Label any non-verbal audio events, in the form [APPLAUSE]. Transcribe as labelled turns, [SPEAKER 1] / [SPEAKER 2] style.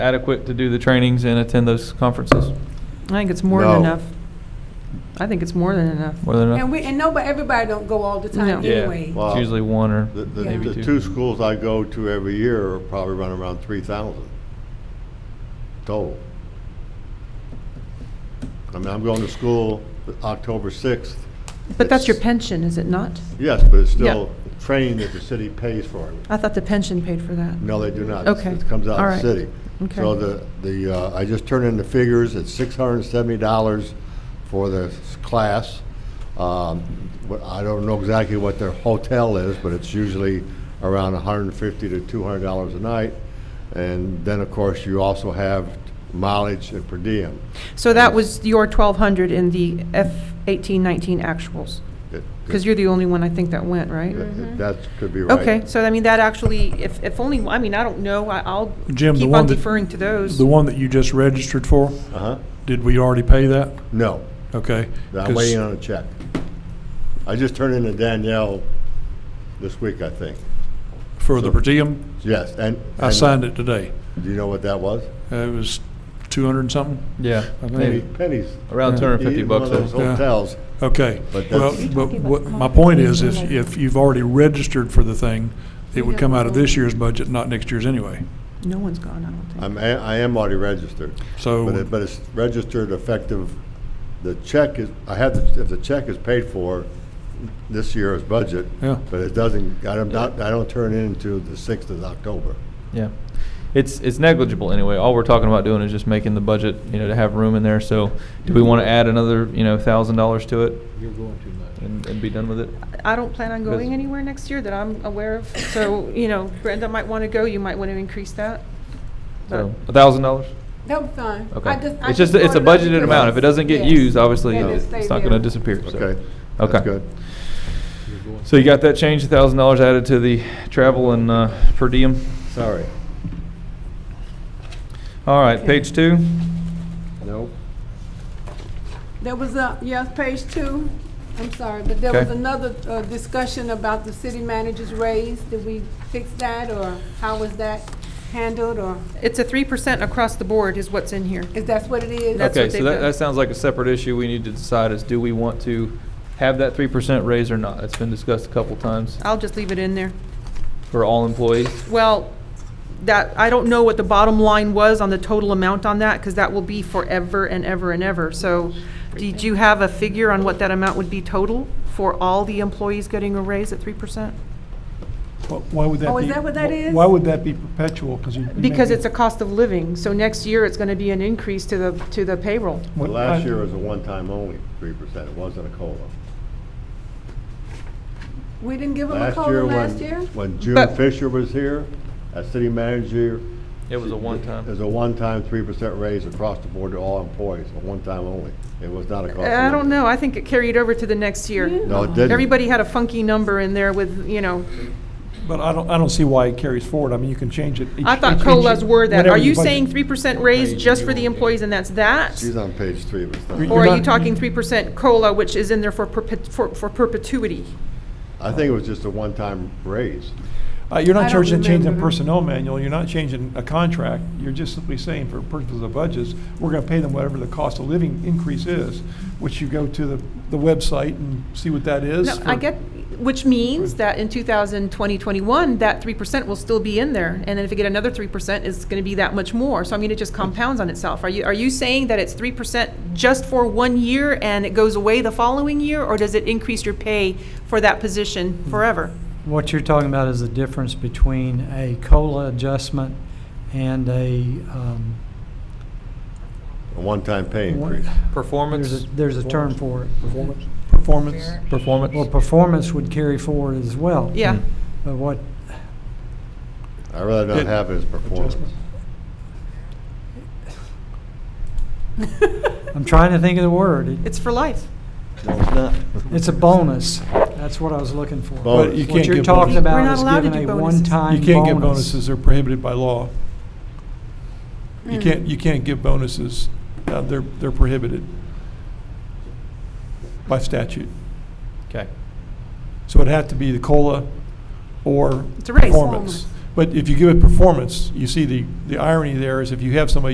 [SPEAKER 1] adequate to do the trainings and attend those conferences?
[SPEAKER 2] I think it's more than
[SPEAKER 3] No.
[SPEAKER 2] enough. I think it's more than enough.
[SPEAKER 1] More than
[SPEAKER 4] And
[SPEAKER 1] enough?
[SPEAKER 4] we, and nobody, everybody don't go all the time
[SPEAKER 2] No. Yeah.
[SPEAKER 4] anyway.
[SPEAKER 3] Well,
[SPEAKER 1] It's usually one or
[SPEAKER 3] The, the,
[SPEAKER 1] maybe
[SPEAKER 3] the
[SPEAKER 1] two.
[SPEAKER 3] two schools I go to every year are probably run around three thousand total. I mean, I'm going to school October sixth.
[SPEAKER 2] But that's your pension, is it not?
[SPEAKER 3] Yes, but it's
[SPEAKER 2] Yeah.
[SPEAKER 3] still training that the city pays for. it.
[SPEAKER 2] I thought the pension paid for that.
[SPEAKER 3] No, they do not.
[SPEAKER 2] Okay.
[SPEAKER 3] It comes out
[SPEAKER 2] All
[SPEAKER 3] of the
[SPEAKER 2] right.
[SPEAKER 3] city. So
[SPEAKER 2] Okay.
[SPEAKER 3] the, the, uh, I just turned in the figures, it's six hundred and seventy dollars for the s- class. Um, what- I don't know exactly what their hotel is, but it's usually around hundred and fifty to two hundred dollars a night. And then, of course, you also have mileage and per diem.
[SPEAKER 2] So that was your 1,200 in the F 18, 19 actuals?
[SPEAKER 3] It-
[SPEAKER 2] Because you're the only one I think that went, right?
[SPEAKER 3] it- That could be right.
[SPEAKER 2] Mm-hmm. Okay, so I mean, that actually, if, if only, I mean, I don't know, I- I'll
[SPEAKER 5] Jim, the
[SPEAKER 2] keep
[SPEAKER 5] one
[SPEAKER 2] on
[SPEAKER 5] that-
[SPEAKER 2] deferring to those.
[SPEAKER 5] The one that you just registered for,
[SPEAKER 3] Uh-huh.
[SPEAKER 5] did we already pay that?
[SPEAKER 3] No,
[SPEAKER 5] Okay.
[SPEAKER 3] I'm waiting on a check. I just turned in to Danielle this week, I think.
[SPEAKER 5] For the per diem,
[SPEAKER 3] Yes, and.
[SPEAKER 5] I
[SPEAKER 3] and-
[SPEAKER 5] signed it today.
[SPEAKER 3] Do you know what that was?
[SPEAKER 5] Uh, It was 200 and something?
[SPEAKER 1] Yeah,
[SPEAKER 5] I think-
[SPEAKER 1] maybe,
[SPEAKER 3] Pennies.
[SPEAKER 1] around two hundred and fifty
[SPEAKER 3] Even one
[SPEAKER 1] bucks.
[SPEAKER 3] of those
[SPEAKER 1] though.
[SPEAKER 5] Yeah.
[SPEAKER 3] hotels.
[SPEAKER 5] Okay.
[SPEAKER 3] But
[SPEAKER 5] Well,
[SPEAKER 3] that's-
[SPEAKER 5] but what, my point is, is if you've already registered for the thing, it would come out of this year's budget, not next year's anyway.
[SPEAKER 2] No one's gone, I don't think.
[SPEAKER 3] I'm, a- I am already registered.
[SPEAKER 5] So-
[SPEAKER 3] But it, but it's registered effective, the check is, I have, the- if the check is paid for this year's budget.
[SPEAKER 5] Yeah.
[SPEAKER 3] But it doesn't, I don't, I don't turn it into the sixth of October.
[SPEAKER 1] Yeah. It's, it's negligible anyway. All we're talking about doing is just making the budget, you know, to have room in there. So do we want to add another, you know, thousand dollars to it? You're going too much. And, and be done with it?
[SPEAKER 2] I don't plan on going
[SPEAKER 1] Yes.
[SPEAKER 2] anywhere next year that I'm aware of, so, you know, Brenda might want to go, you might want to increase that.
[SPEAKER 4] Uh,
[SPEAKER 2] But-
[SPEAKER 1] So, a thousand dollars?
[SPEAKER 4] That was fine. I
[SPEAKER 1] Okay.
[SPEAKER 4] I
[SPEAKER 1] It's just, it's a
[SPEAKER 4] brought it up
[SPEAKER 1] budgeted
[SPEAKER 4] because-
[SPEAKER 1] amount. If it doesn't get
[SPEAKER 4] Yes.
[SPEAKER 1] used, obviously,
[SPEAKER 4] Yeah,
[SPEAKER 1] it-
[SPEAKER 4] stay
[SPEAKER 1] it's not
[SPEAKER 4] there.
[SPEAKER 1] gonna disappear, so.
[SPEAKER 3] Okay?
[SPEAKER 1] Okay.
[SPEAKER 3] That's good.
[SPEAKER 1] So you got that change, a thousand dollars added to the travel and, uh, per diem?
[SPEAKER 3] Sorry.
[SPEAKER 1] All right, page two.
[SPEAKER 3] Nope.
[SPEAKER 4] There was a, yes, page two, I'm sorry, but there
[SPEAKER 1] Okay.
[SPEAKER 4] was another uh, discussion about the city manager's raise. Did we fix that, or how was that handled, or
[SPEAKER 2] It's a 3% across the board is what's in here.
[SPEAKER 4] is that what it is?
[SPEAKER 2] That's
[SPEAKER 1] Okay,
[SPEAKER 2] what
[SPEAKER 1] so
[SPEAKER 2] they've
[SPEAKER 1] that,
[SPEAKER 2] done.
[SPEAKER 1] that sounds like a separate issue we need to decide is do we want to have that three percent raise or not? It's been discussed a couple times
[SPEAKER 2] I'll just leave it in there.
[SPEAKER 1] for all employees.
[SPEAKER 2] Well, that, I don't know what the bottom line was on the total amount on that, because that will be forever and ever and ever. So did you have a figure on what that amount would be total for all the employees getting a raise at 3%?
[SPEAKER 6] Wh- Why would that be?
[SPEAKER 4] Oh, is that what that
[SPEAKER 6] wh-
[SPEAKER 4] is?
[SPEAKER 6] Why would that be perpetual? Because you. you make
[SPEAKER 2] Because
[SPEAKER 6] it-
[SPEAKER 2] it's a cost of living, so next year it's going to be an increase to the, to the payroll.
[SPEAKER 6] what-
[SPEAKER 3] Last
[SPEAKER 6] I-
[SPEAKER 3] year was a one-time only, three percent. It wasn't a COLA.
[SPEAKER 4] We didn't give them a COLA
[SPEAKER 3] when-
[SPEAKER 4] last year?
[SPEAKER 3] When June
[SPEAKER 2] But-
[SPEAKER 3] Fisher was here, as city manager,
[SPEAKER 1] It was a one-time.
[SPEAKER 3] There's a one-time three percent raise across the board to all employees, a one-time only. It was not a cost. of
[SPEAKER 2] I don't
[SPEAKER 3] living.
[SPEAKER 2] know, I think it carried over to the next year.
[SPEAKER 3] No, it didn't.
[SPEAKER 2] Everybody had a funky number in there with, you know,
[SPEAKER 6] But I don't, I don't see why it carries forward. I mean, you can change it. each-
[SPEAKER 2] I thought
[SPEAKER 6] each-
[SPEAKER 2] COLAs
[SPEAKER 6] each-
[SPEAKER 2] were that.
[SPEAKER 6] whenever
[SPEAKER 2] Are you
[SPEAKER 6] budget.
[SPEAKER 2] saying 3% raise just for the employees and that's that?
[SPEAKER 3] She's on page three of
[SPEAKER 6] Re-
[SPEAKER 3] it.
[SPEAKER 2] Or
[SPEAKER 6] You're
[SPEAKER 2] are you
[SPEAKER 6] not-
[SPEAKER 2] talking 3% COLA, which is in there for perpet- for for perpetuity?
[SPEAKER 3] I think it was just a one-time raise.
[SPEAKER 6] Uh, You're
[SPEAKER 4] I
[SPEAKER 6] not
[SPEAKER 4] don't
[SPEAKER 6] changing, changing
[SPEAKER 4] remember.
[SPEAKER 6] personnel manual, you're not changing a contract, you're just simply saying for purposes of budgets, we're gonna pay them whatever the cost of living increase is, which you go to the, the website and see what that is.
[SPEAKER 2] No, I
[SPEAKER 6] for-
[SPEAKER 2] get, which means that in 2020, 21, that 3% will still be in there. And then if you get another 3%, it's going to be that much more. So I mean, it just compounds on itself. Are you, are you saying that it's 3% just for one year and it goes away the following year? Or does it increase your pay for that position forever?
[SPEAKER 6] Mm-hmm.
[SPEAKER 7] What you're talking about is the difference between a COLA adjustment and a, um,
[SPEAKER 3] A one-time pay
[SPEAKER 7] One-
[SPEAKER 3] increase.
[SPEAKER 7] there's
[SPEAKER 1] Performance,
[SPEAKER 7] a, there's a term for it.
[SPEAKER 6] Performance, performance,
[SPEAKER 7] Well,
[SPEAKER 1] performance.
[SPEAKER 7] performance would carry forward as well.
[SPEAKER 2] Yeah.
[SPEAKER 7] But what,
[SPEAKER 3] I'd rather not
[SPEAKER 5] It-
[SPEAKER 3] have it as performance.
[SPEAKER 6] Adjustment. Mm-hmm.
[SPEAKER 2] [LAUGHS]
[SPEAKER 7] I'm trying to think of the word. It-
[SPEAKER 2] It's for life.
[SPEAKER 3] No, it's not.
[SPEAKER 7] It's a bonus. That's what I was looking for.
[SPEAKER 3] Bonus. But you
[SPEAKER 7] What
[SPEAKER 6] can't
[SPEAKER 7] you're
[SPEAKER 6] give
[SPEAKER 7] talking
[SPEAKER 6] bonuses.
[SPEAKER 2] We're
[SPEAKER 7] about
[SPEAKER 2] not
[SPEAKER 7] is
[SPEAKER 2] allowed to
[SPEAKER 7] giving
[SPEAKER 2] do
[SPEAKER 7] a
[SPEAKER 2] bonuses.
[SPEAKER 7] one-time
[SPEAKER 6] you
[SPEAKER 7] bonus.
[SPEAKER 6] can't give bonuses, they're prohibited by law. You can't,
[SPEAKER 4] Hmm.
[SPEAKER 6] you can't give bonuses, uh, they're, they're prohibited by statute.
[SPEAKER 1] Okay.
[SPEAKER 6] So it'd have to be the COLA or
[SPEAKER 2] It's a raise.
[SPEAKER 6] performance. But if you give it performance, you see the, the irony there is if you have somebody